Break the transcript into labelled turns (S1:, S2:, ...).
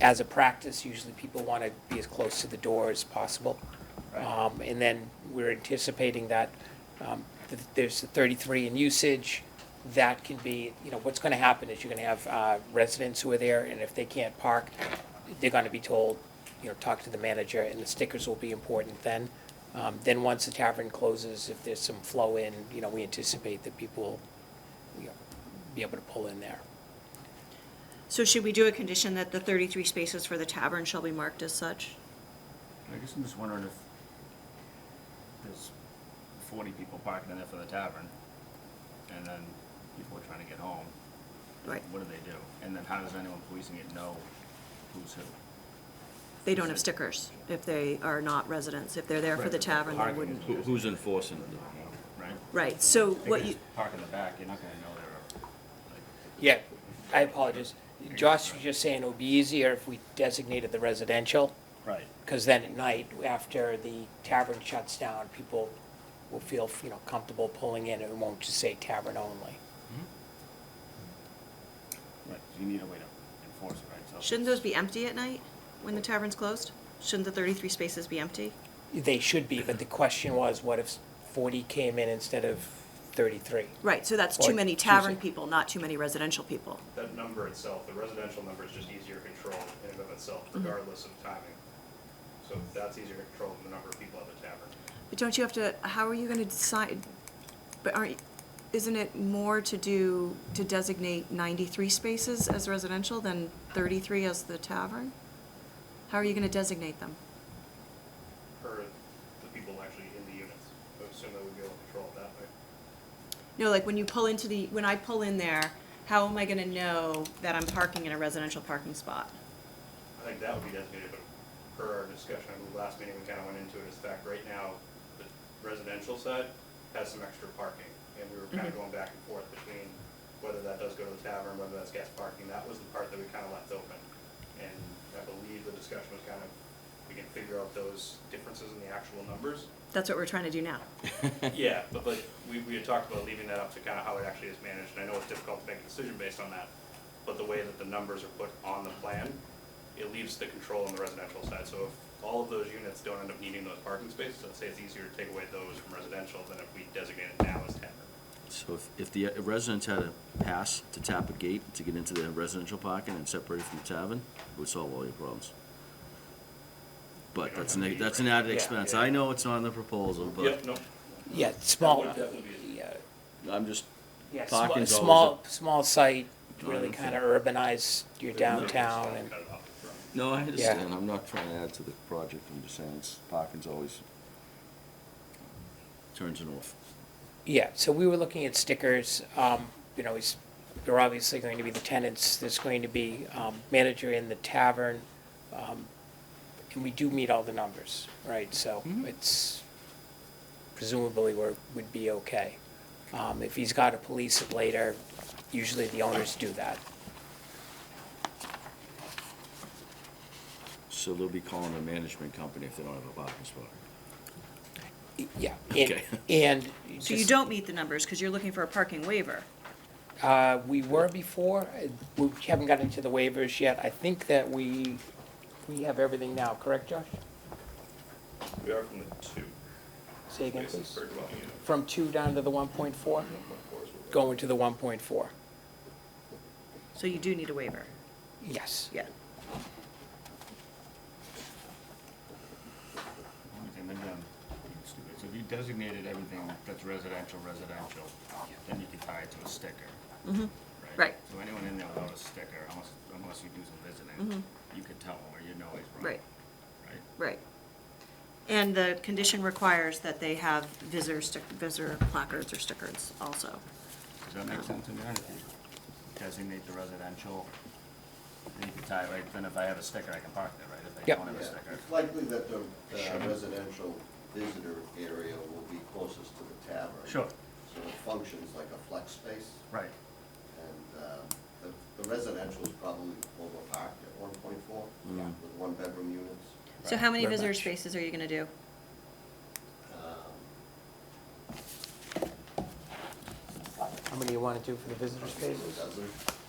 S1: as a practice, usually people want to be as close to the door as possible. Um, And then we're anticipating that um, th- there's the 33 in usage. That can be, you know, what's going to happen is you're going to have uh, residents who are there, and if they can't park, they're going to be told, you know, talk to the manager, and the stickers will be important then. Um, Then once the tavern closes, if there's some flow in, you know, we anticipate that people will you know, be able to pull in there.
S2: So should we do a condition that the 33 spaces for the tavern shall be marked as such?
S3: I guess I'm just wondering if there's forty people parking in there for the tavern, and then people are trying to get home.
S2: Right,
S3: What do they do? And then how does anyone policing it know who's who?
S2: they don't have stickers if they are not residents. If they're there for the tavern, they
S3: Parking
S2: wouldn't.
S3: is
S4: Who-
S3: just-
S4: Who's enforcing it though?
S3: Right?
S2: Right, so
S3: They
S2: what
S3: could
S2: you,
S3: just Park in the back, you're not gonna know they're, like,
S1: Yeah, I apologize. Josh was just saying it would be easier if we designated the residential,
S3: right.
S1: because then at night, after the tavern shuts down, people will feel, you know, comfortable pulling in, and it won't just say tavern only.
S3: Right, 'cause you need a way to enforce it, right? So if
S2: shouldn't
S3: it's-
S2: those be empty at night when the tavern's closed? Shouldn't the 33 spaces be empty?
S1: They should be, but the question was, what if forty came in instead of thirty-three?
S2: Right, so that's
S1: Or
S2: too many tavern
S1: choosing.
S2: people, not too many residential people.
S5: That number itself, the residential number is just easier to control in and of itself regardless of timing. So that's easier to control than the number of people at the tavern.
S2: But don't you have to, how are you gonna decide? But aren't, isn't it more to do, to designate ninety-three spaces as residential than thirty-three as the tavern? How are you gonna designate them?
S5: Or the people actually in the units, I would assume that we'd be able to control it that way.
S2: No, like when you pull into the, when I pull in there, how am I gonna know that I'm parking in a residential parking spot?
S5: I think that would be designated, but per our discussion, I believe last meeting, we kind of went into it as fact, right now, the residential side has some extra parking, and we were kind of going back and forth between whether that does go to the tavern, whether that's guest parking, that was the part that we kind of left open. And I believe the discussion was kind of, we can figure out those differences in the actual numbers.
S2: That's what we're trying to do now.
S5: Yeah, but, but we, we had talked about leaving that up to kind of how it actually is managed, and I know it's difficult to make a decision based on that, but the way that the numbers are put on the plan, it leaves the control on the residential side, so if all of those units don't end up needing those parking spaces, I'd say it's easier to take away those from residential than if we designate it now as tavern.
S4: So if, if the residents had a pass to tap a gate to get into their residential parking and separated from the tavern, it would solve all your problems. But that's an, that's an added
S1: Yeah.
S4: expense. I know it's not in the proposal,
S5: Yep,
S4: but
S5: no,
S1: Yeah, small,
S5: That would definitely
S1: yeah,
S4: I'm just,
S1: yeah,
S4: Parking's
S1: sm-
S4: always
S1: small, small site, really
S4: Drive-through.
S1: kind of urbanize your downtown and.
S5: Cut it off.
S4: no, I understand. I'm not trying to add to the project. I'm just saying, it's, parking's always turns it off.
S1: Yeah, so we were looking at stickers, um, you know, is, there are obviously going to be the tenants, there's going to be, um, manager in the tavern, um, and we do meet all the numbers, right, so it's presumably we're, would be okay. Um, if he's got to police it later, usually the owners do that.
S4: So they'll be calling the management company if they don't have a parking spot.
S1: Y- Yeah, and,
S4: Okay.
S1: and.
S2: So you
S1: just-
S2: don't meet the numbers, cause you're looking for a parking waiver.
S1: Uh, we were before, Uh, we haven't gotten to the waivers yet, I think that we, we have everything now, correct, Josh?
S5: We are from the two,
S1: Say again,
S5: basis
S1: please.
S5: per dwelling unit,
S1: From two down to the one point four,
S5: one four is what we're-
S1: going to the one point four,
S2: So you do need a waiver,
S1: yes.
S2: yeah.
S3: Only thing, maybe I'm being um, stupid. So if you designated everything that's residential, residential, then you could tie it to a sticker. Mm-hmm,
S2: Right.
S3: So anyone in there without a sticker, unless, unless you do some visiting, you could tell where you know he's wrong.
S2: Mm-hmm. Right.
S3: Right?
S2: Right. And the condition requires that they have visitor stick, visitor placards or stickers also.
S3: Does that make sense to me? If you designate the residential, then you could tie, it right, then if I have a sticker, I can park there, right? If I
S1: Yep.
S3: don't have a
S6: Yeah,
S3: sticker.
S6: It's likely that the uh, residential visitor area will be closest to the tavern.
S3: Sure.
S6: So it functions like a flex space,
S3: Right.
S6: and um, the- the residential is probably overparked at one point four with one-bedroom units.
S2: So how many
S1: Very
S2: visitor
S1: much.
S2: spaces are you gonna do?
S6: Um,
S1: How many you want to do for the visitor
S6: maybe a
S1: spaces?
S6: dozen.